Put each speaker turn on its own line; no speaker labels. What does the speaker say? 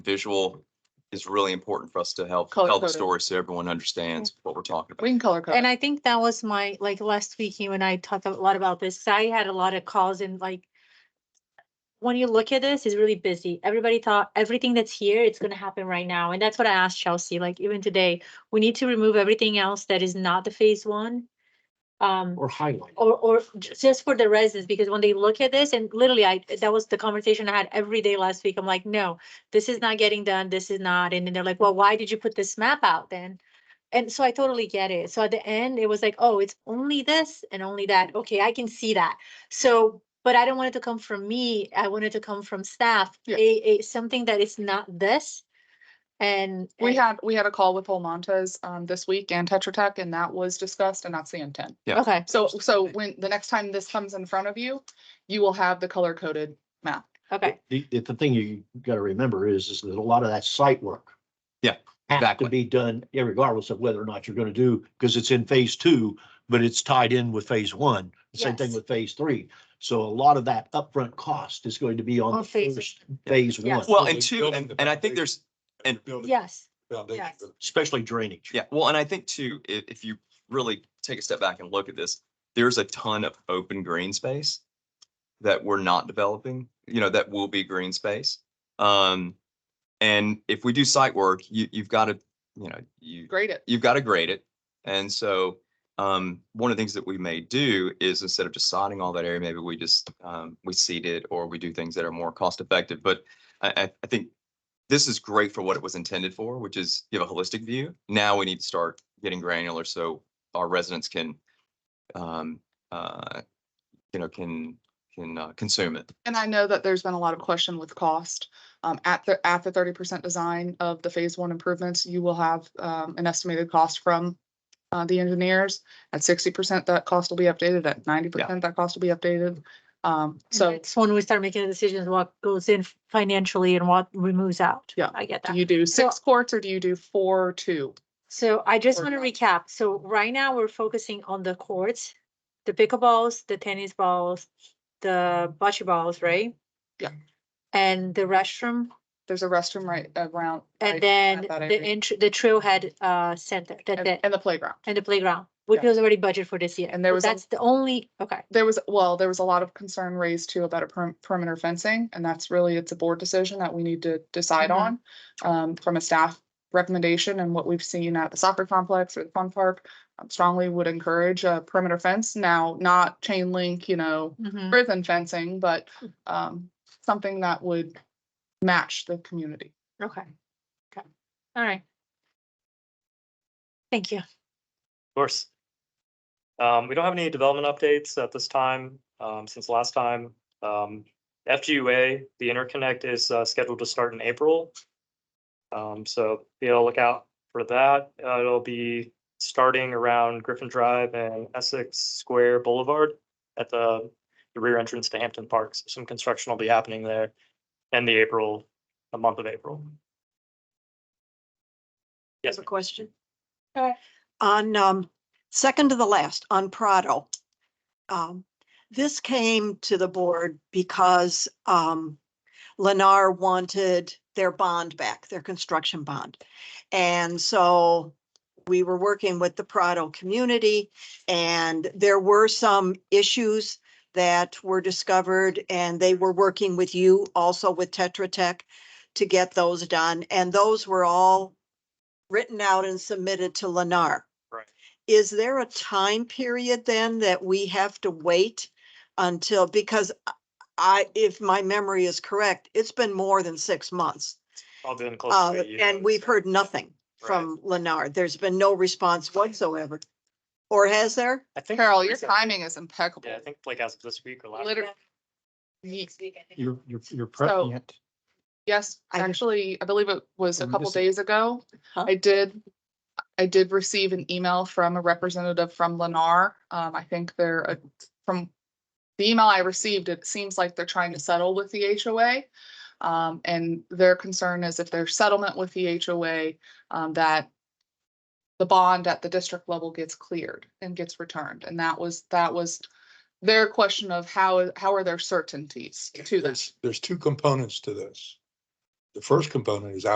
visual is really important for us to help
Color
tell the
coded.
story so everyone understands what we're talking about.
We can color code.
And I think that was my, like, last week, you and I talked a lot about this. I had a lot of calls and like, when you look at this, it's really busy. Everybody thought everything that's here, it's gonna happen right now. And that's what I asked Chelsea, like even today, we need to remove everything else that is not the phase one. Um,
or highlight.
or, or ju- just for the residents, because when they look at this and literally I, that was the conversation I had every day last week. I'm like, no, this is not getting done. This is not. And then they're like, well, why did you put this map out then? And so I totally get it. So at the end, it was like, oh, it's only this and only that. Okay, I can see that. So, but I don't want it to come from me. I want it to come from staff,
Yeah.
a, a, something that is not this. And.
We
and-
had, we had a call with Whole Montes um this week and Tetra Tech and that was discussed and that's the intent.
Yeah.
Okay,
So, so when, the next time this comes in front of you, you will have the color coded map.
okay.
The, the the thing you gotta remember is, is that a lot of that site work.
Yeah,
Has
exactly.
to be done regardless of whether or not you're gonna do, because it's in phase two, but it's tied in with phase one. Same thing
Yes.
with phase three. So a lot of that upfront cost is going to be on
On
the
phases.
first phase
Yes.
one.
Well, and two, and, and I think there's, and-
Yes,
Foundation.
Yes.
for the-
Especially drainage.
yeah, well, and I think too, if, if you really take a step back and look at this, there's a ton of open green space that we're not developing, you know, that will be green space. Um, and if we do site work, you, you've got to, you know, you,
Grade it.
you've got to grade it. And so um, one of the things that we may do is instead of just sodding all that area, maybe we just um, we seed it or we do things that are more cost effective. But I, I, I think this is great for what it was intended for, which is give a holistic view. Now we need to start getting granular so our residents can, um, uh, you know, can can uh, consume it.
And I know that there's been a lot of question with cost. Um, at the, at the thirty percent design of the phase one improvements, you will have, um, an estimated cost from uh, the engineers. At sixty percent, that cost will be updated. At ninety percent, that cost will be updated. Um, so
It's when we start making the decisions, what goes in financially and what removes out.
Yeah.
I get
do
that.
you do
So-
six quarts or do you do four, or two?
So I just
Or
want to
not.
recap. So right now we're focusing on the courts, the pickleballs, the tennis balls, the bocce balls, right?
Yeah.
And the restroom
There's a restroom right around. right
and
at
then
that
the
area,
entry, the trailhead uh center, that's
And
it,
and the playground.
and the playground, which
Yeah.
was already budgeted for this year.
And there
So
was a-
That's the only, okay,
There was, well, there was a lot of concern raised too about a perim- perimeter fencing, and that's really, it's a board decision that we need to decide
Mhm.
on. Um, from a staff recommendation and what we've seen at the soccer complex or the fun park, um, strongly would encourage a perimeter fence. Now, not chain link, you know,
Mhm.
prison fencing, but, um, something that would match the community.
okay, okay, all right. Thank you.
Of course. Um, we don't have any development updates at this time, um, since last time. Um, FGUA, the interconnect is, uh, scheduled to start in April. Um, so be on the lookout for that. Uh, it'll be starting around Griffin Drive and Essex Square Boulevard at the the rear entrance to Hampton Park. So Some construction will be happening there in the April, the month of April.
I
Yes,
have a question.
Go ahead.
On, um, second to the last, on Prado. Um, this came to the board because, um, Lennar wanted their bond back, their construction bond. And so we were working with the Prado community and there were some issues that were discovered and they were working with you, also with Tetra Tech to get those done. And those were all written out and submitted to Lennar.
Right.
Is there a time period then that we have to wait until, because I, if my memory is correct, it's been more than six months.
I'll be in close.
Uh,
to a year, I
and
would
we've
say.
heard nothing from Lennar. There's been no response whatsoever. Or has there?
I think
Carol, your
recently-
timing is impeccable.
Yeah, I think like as of this week or last.
Literally.
week.
Ye-
You're, you're, you're
So-
prepping it.
Yes,
I think-
actually, I believe it was a
I'm
couple
just-
days ago.
Huh?
I did, I did receive an email from a representative from Lennar. Um, I think they're, uh, from the email I received, it seems like they're trying to settle with the HOA. Um, and their concern is if there's settlement with the HOA, um, that the bond at the district level gets cleared and gets returned. And that was, that was their question of how, how are their certainties to this?
There's, there's two components to this. The first component is